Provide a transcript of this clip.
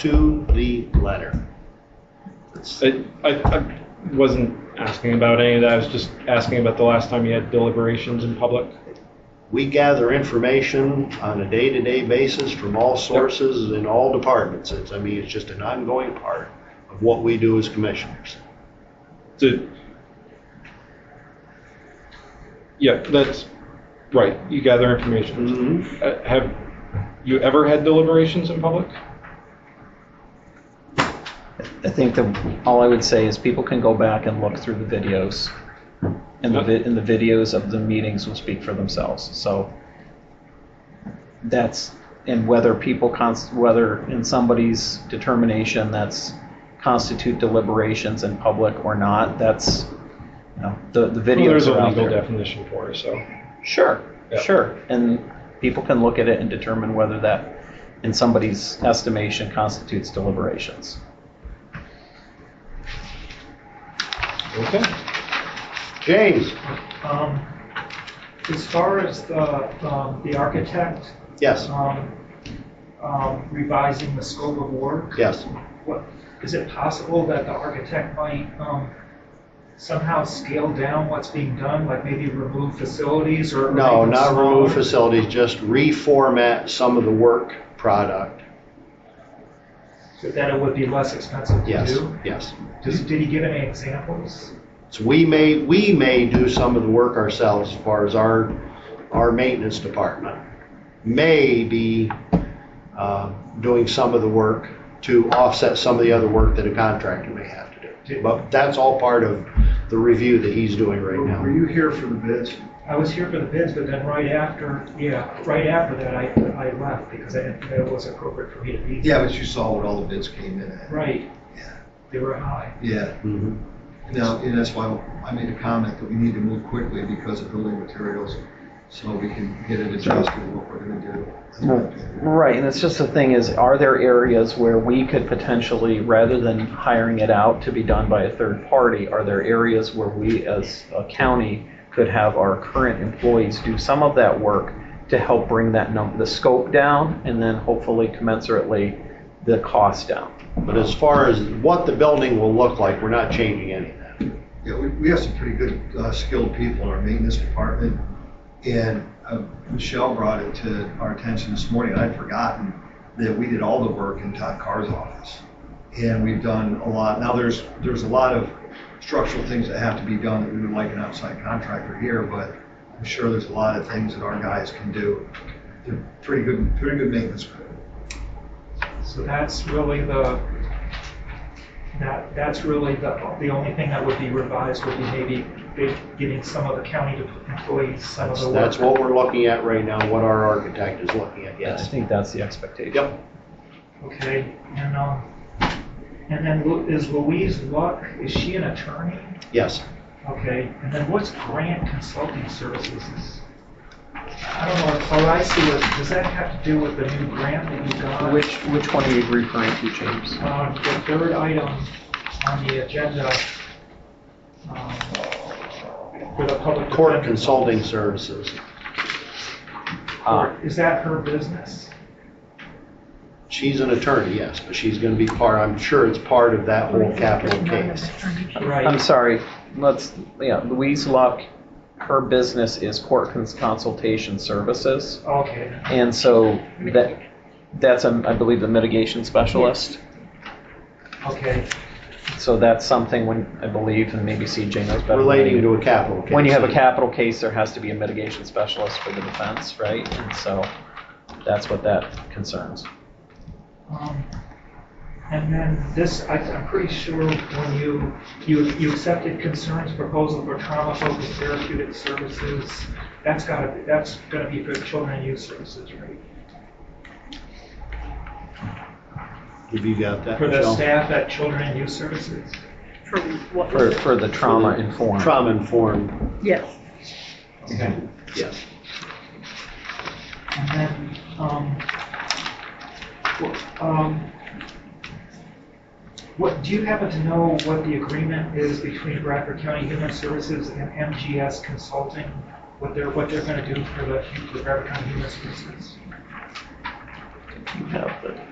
to the letter. That's- I, I, I wasn't asking about any of that. I was just asking about the last time you had deliberations in public. We gather information on a day-to-day basis from all sources in all departments. It's, I mean, it's just an ongoing part of what we do as commissioners. To, yeah, that's right. You gather information. Mhm. Uh, have you ever had deliberations in public? I think that all I would say is people can go back and look through the videos. And the, vi- and the videos of the meetings will speak for themselves, so. That's, and whether people const, whether in somebody's determination that's constitute deliberations in public or not, that's, you know, the, the Well, there's videos a are out legal there. definition for it, so. Sure, Yeah. sure, and people can look at it and determine whether that, in somebody's estimation, constitutes deliberations. Okay. James? Um, As far as the, um, the architect Yes, um, um, revising the scope of work, yes. what, is it possible that the architect might um, somehow scale down what's being done, like maybe remove facilities or? No, make them not remove smaller? facilities, just reformat some of the work product. So That it would be less expensive to Yes, do? yes. Does- Did he give any examples? So we may, we may do some of the work ourselves as far as our, our maintenance department. May be uh, doing some of the work to offset some of the other work that a contractor may have to do. But that's all part of the review that he's doing right Were now. you here for the bids? I was here for the bids, but then right after, yeah, right after that, I, I left because I didn't think it was appropriate for me to be. there. Yeah, but you saw what all the bids came in at. Right, Yeah. they were high. Yeah, Mhm. no, and that's why I made a comment that we need to move quickly because of building materials, so we can get it adjusted what we're gonna do. That's my opinion. Right, and it's just the thing is, are there areas where we could potentially, rather than hiring it out to be done by a third party, are there areas where we as a county could have our current employees do some of that work to help bring that num, the scope down, and then hopefully commensurately the cost down? But as far as what the building will look like, we're not changing any of that. Yeah, we, we have some pretty good uh, skilled people in our maintenance department, and uh, Michelle brought it to our attention this morning, and I'd forgotten that we did all the work in Todd Carr's office. And we've done a lot, now there's, there's a lot of structural things that have to be done that we would like an outside contractor here, but I'm sure there's a lot of things that our guys can do. They're pretty good, pretty good maintenance crew. So that's really the, that, that's really the, the only thing that would be revised would be maybe they- getting some of the county employees some of the work. That's what we're looking at right now, what our architect is looking at, I yes. think that's the expectation. Yep. Okay, and, um, and then Lu- is Louise Luck, is she an attorney? Yes. Okay, and then what's grant consulting services? I don't know, all I see is, does that have to do with the new grant that you got? Which, which one are you referring to, James? Uh, The third item on the agenda um, for the public. Court defender- consulting services. Uh, Court, Is that her business? She's an attorney, yes, but she's going to be part, I'm sure it's part of that whole capital case. I'm Right, sorry, let's, yeah, Louise Luck, her business is court cons- consultation services. okay. And so that, that's, um, I believe, the mitigation specialist. Okay, So that's something when, I believe, and maybe CJ knows better. Relating to a capital case. When you have a capital case, there has to be a mitigation specialist for the defense, right? And so that's what that concerns. um, and then this, I- I'm pretty sure when you, you, you accepted concerns proposal for trauma-focused therapeutic services, that's gotta, be that's gonna be for children and youth services, right? Have you got that, For the Michelle? staff at children and youth services? For what? For, for the trauma informed. Trauma-informed, Yes. Okay. yes. And then, um, w- um, what, do you happen to know what the agreement is between Bradford County Human Services and MGS Consulting? What they're, what they're gonna do for the, for Bradford County Human Services? You have the